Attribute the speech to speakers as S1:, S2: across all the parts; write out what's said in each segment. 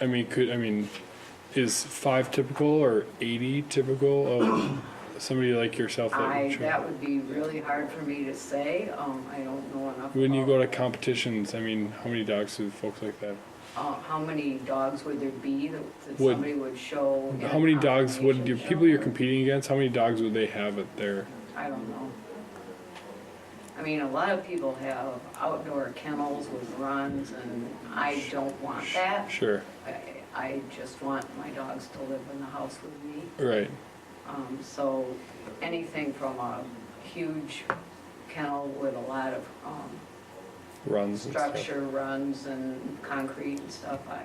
S1: I mean, could, I mean, is five typical or eighty typical of somebody like yourself? that
S2: I,
S1: would try-
S2: that would be really hard for me to say, um, I don't know enough.
S1: When you
S2: about,
S1: go to competitions, I mean, how many dogs do folks like that?
S2: Uh, how many dogs would there be that, that
S1: Would-
S2: somebody would show? in
S1: How
S2: a
S1: many dogs would
S2: combination
S1: you,
S2: show?
S1: people you're competing against, how many dogs would they have at their?
S2: I don't know. I mean, a lot of people have outdoor kennels with runs and I don't want that.
S1: Sure,
S2: I, I just want my dogs to live in the house with me.
S1: right,
S2: Um, so anything from a huge kennel with a lot of, um,
S1: runs and stuff.
S2: structure runs and concrete and stuff I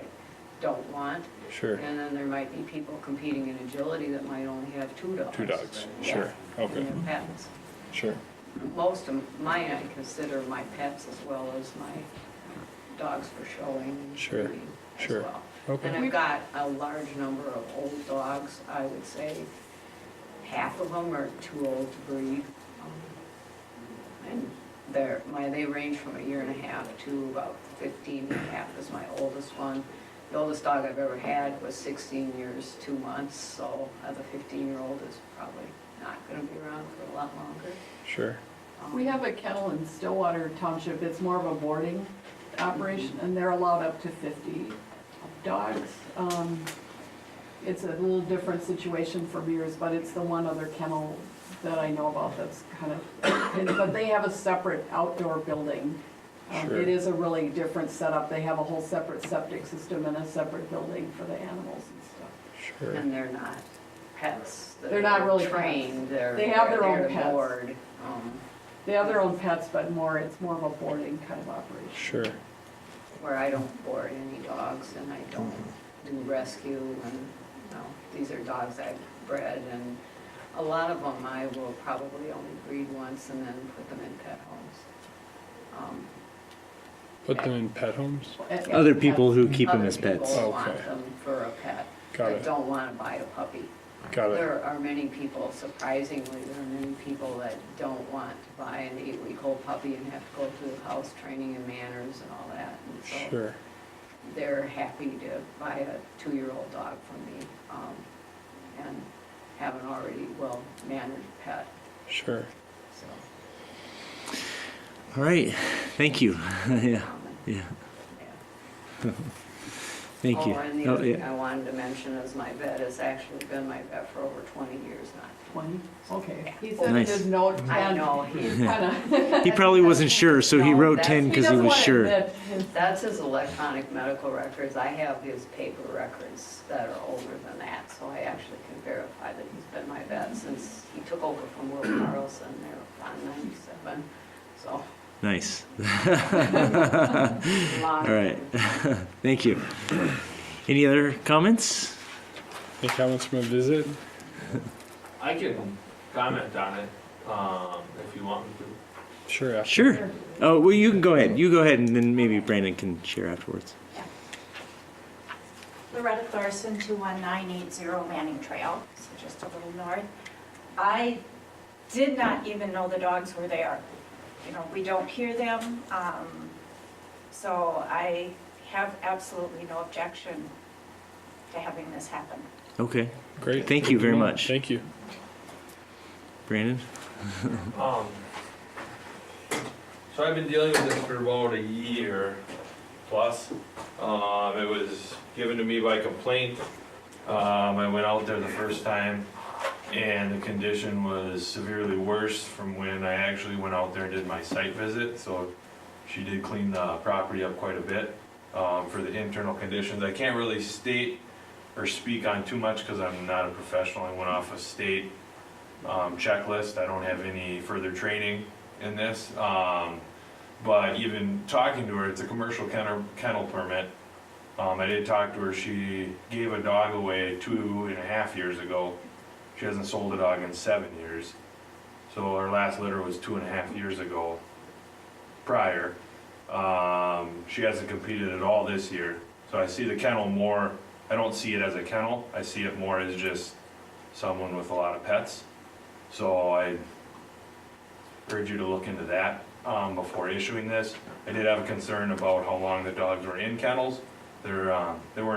S2: don't want.
S1: Sure,
S2: And then there might be people competing in agility that might only have two dogs.
S1: two dogs, sure,
S2: Yeah,
S1: okay,
S2: And their pets.
S1: sure,
S2: Most of mine I consider my pets as well as my dogs for showing and
S1: Sure,
S2: breeding as
S1: sure.
S2: well. And
S1: okay,
S2: I've got a large number of old dogs, I would say half of them are too old to breed. Um, And they're, my, they range from a year and a half to about 15 and a half is my oldest one. The oldest dog I've ever had was 16 years, two months, so uh, the 15-year-old is probably not gonna be around for a lot longer.
S1: sure,
S2: Um,
S3: We have a kennel in Stillwater Township, it's more of a boarding operation, and they're allowed up to fifty dogs. Um, It's a little different situation from yours, but it's the one other kennel that I know about that's kind of, and- but they have a separate outdoor building. Um,
S1: Sure.
S3: It is a really different setup, they have a whole separate septic system and a separate building for the animals and stuff.
S1: sure,
S2: And they're not pets. that
S3: They're not
S2: are
S3: really pets.
S2: Trained, they're.
S3: They have their
S2: they're
S3: own
S2: the
S3: pets.
S2: board, um,
S3: They have their own pets, but more, it's more of a boarding kind of operation.
S1: sure,
S2: where I don't board any dogs and I don't do rescue and, no, these are dogs I've bred and a lot of them I will probably only breed once and then put them in pet homes. Um,
S1: put them in pet homes,
S3: And-
S4: Other people who keep them
S2: other
S4: as pets.
S2: people
S1: Oh,
S2: want
S1: okay.
S2: them for a pet.
S1: Got
S2: that
S1: it.
S2: don't want to buy a puppy.
S1: got it,
S2: There are many people, surprisingly, there are many people that don't want to buy an eight-week-old puppy and have to go through house training and manners and all that. And so
S1: sure,
S2: They're happy to buy a two-year-old dog from me um, and have an already well-mannered pet,
S1: sure.
S2: so.
S4: All right, thank you. yeah,
S2: um,
S4: yeah,
S2: yeah.
S4: thank you.
S2: Oh, and the
S4: Oh,
S2: other thing
S4: yeah.
S2: I wanted to mention is my vet has actually been my vet for over 20 years now.
S3: Twenty, okay. He said in
S4: Nice.
S3: his note,
S2: I
S3: ten,
S2: know,
S3: he's
S2: he-
S3: kinda.
S4: He probably wasn't sure, so he
S2: No,
S4: wrote
S2: that's-
S4: ten
S3: He
S4: because he
S3: doesn't
S4: was
S3: wanna
S4: sure.
S3: admit his-
S2: that's his electronic medical records. I have his paper records that are older than that, so I actually can verify that he's been my vet since he took over from Will Carlson there on 97, so.
S4: Nice.
S2: long
S4: All right,
S2: time.
S4: thank you. Any other comments?
S1: Any comments from a visit?
S5: I can comment on it, um, if you want me to.
S1: Sure, after.
S4: Sure. Oh, well, you can go ahead. You go ahead, and then maybe Brandon can share afterwards.
S6: Loretta Thorson, 21980 Manning Trail, so just a little north. I did not even know the dogs were there. You know, we don't hear them, um, so I have absolutely no objection to having this happen.
S4: Okay,
S1: great.
S4: Thank you very much.
S1: Thank you.
S4: Brandon.
S5: Um, so I've been dealing with this for about a year plus. Um, it was given to me by complaint. Um, I went out there the first time and the condition was severely worse from when I actually went out there and did my site visit. So she did clean the property up quite a bit, um, for the internal conditions. I can't really state or speak on too much because I'm not a professional. I went off a state um, checklist. I don't have any further training in this. Um, but even talking to her, it's a commercial kennel, kennel permit. Um, I did talk to her. She gave a dog away two and a half years ago. She hasn't sold a dog in seven years. So her last litter was two and a half years ago prior. Um, she hasn't competed at all this year. So I see the kennel more, I don't see it as a kennel. I see it more as just someone with a lot of pets. So I urge you to look into that um, before issuing this. I did have a concern about how long the dogs were in kennels. They're, um, they were